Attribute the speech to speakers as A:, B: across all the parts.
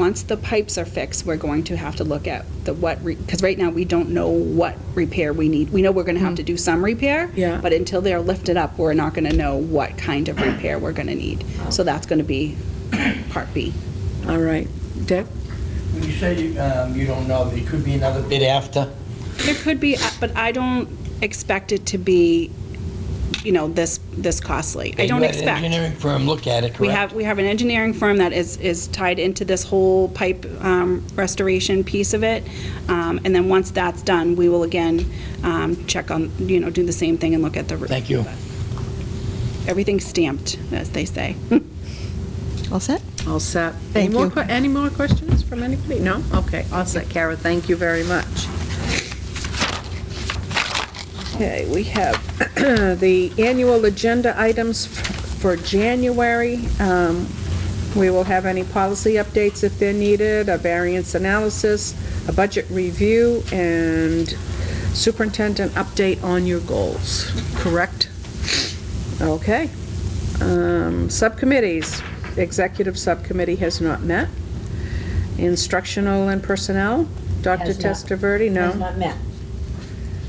A: once the pipes are fixed, we're going to have to look at the what, because right now, we don't know what repair we need. We know we're going to have to do some repair.
B: Yeah.
A: But until they're lifted up, we're not going to know what kind of repair we're going to need. So that's going to be part B.
B: All right, Dick?
C: When you say you, um, you don't know, there could be another bid after?
A: There could be, uh, but I don't expect it to be, you know, this, this costly. I don't
C: You had an
A: expect.
C: uh, Engineering firm look at it,
A: We
C: correct?
A: have, we have an engineering firm that is, is tied into this whole pipe um, restoration piece of it. Um, And then once that's done, we will again um, check on, you know, do the same thing and look at the. roof.
C: Thank you.
A: Everything's stamped, as they say.
D: All set?
B: All set.
D: Thank
B: Any more
D: you.
B: que- Any more questions from anybody? No? Okay, all set. Kara, thank you very much. Okay, we have the annual agenda items for January. Um, We will have any policy updates if they're needed, a variance analysis, a budget review, and superintendent update on your goals, correct? Okay. Um, Subcommittees, executive subcommittee has not met. Instructional and personnel, Dr.
E: Has not-
B: Testaverde, no.
E: Has not met.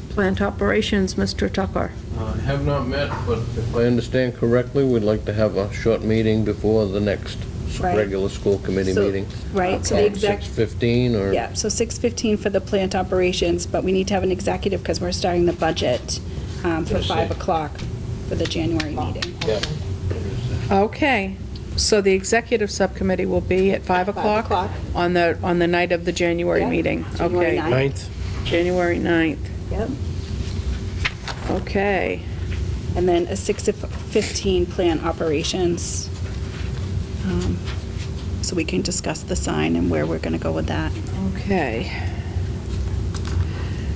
B: Plant operations, Mr. Tucker.
F: Uh, Have not met, but if I understand correctly, we'd like to have a short meeting before the next s-
A: Right.
F: regular school committee
A: So-
F: meeting.
A: Right, so the
F: Um,
A: exec,
F: 6:15 or?
A: yeah, so 6:15 for the plant operations, but we need to have an executive because we're starting the budget um, for
C: Yes,
A: 5
C: sir.
A: o'clock for the January meeting.
C: Yeah.
B: Okay, so the executive subcommittee will be at 5 o'clock?
A: o'clock.
B: On the, on the night of the January
A: Yeah,
B: meeting?
A: January
B: Okay,
A: ninth.
F: Ninth?
B: January 9th,
A: Yep.
B: okay.
A: And then a 6 of 15 plan operations. Um, So we can discuss the sign and where we're going to go with that.
B: Okay.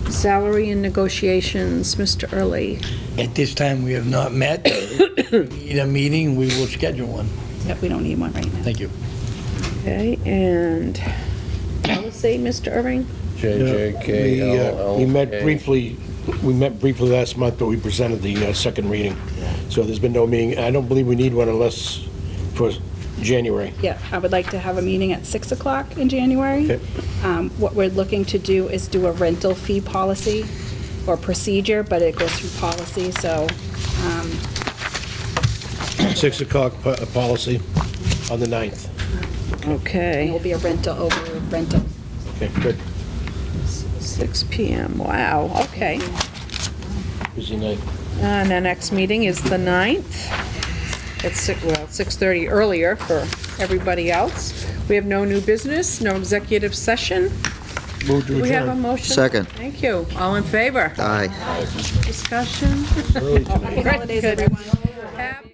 B: Salary and negotiations, Mr. Early.
C: At this time, we have not met. We Need a meeting, we will schedule one.
A: Yep, we don't need one right now.
C: Thank you.
B: Okay, and policy, Mr. Irving?
G: We, uh,
F: JJKLLK.
G: We met briefly, we met briefly last month, but we presented the uh, second reading. So there's been no meeting. I don't believe we need one unless for January.
A: Yeah, I would like to have a meeting at 6 o'clock in January.
G: Okay.
A: Um, What we're looking to do is do a rental fee policy or procedure, but it goes through policy, so,
G: 6 o'clock po- uh, policy on the 9th.
A: and it will
B: Okay,
A: be a rental over rental.
G: Okay, good.
B: 6 PM, wow, okay.
G: Busy night.
B: And the next meeting is the 9th. It's, si- well, 6:30 earlier for everybody else. We have no new business, no executive session.
G: Move
B: Do
G: to
B: we have a
G: adjourn.
B: motion?
H: Second.
B: Thank you. All in favor?
H: Aye.
B: Discussion?
G: Early tonight.
A: Happy holidays, everyone.
B: Happy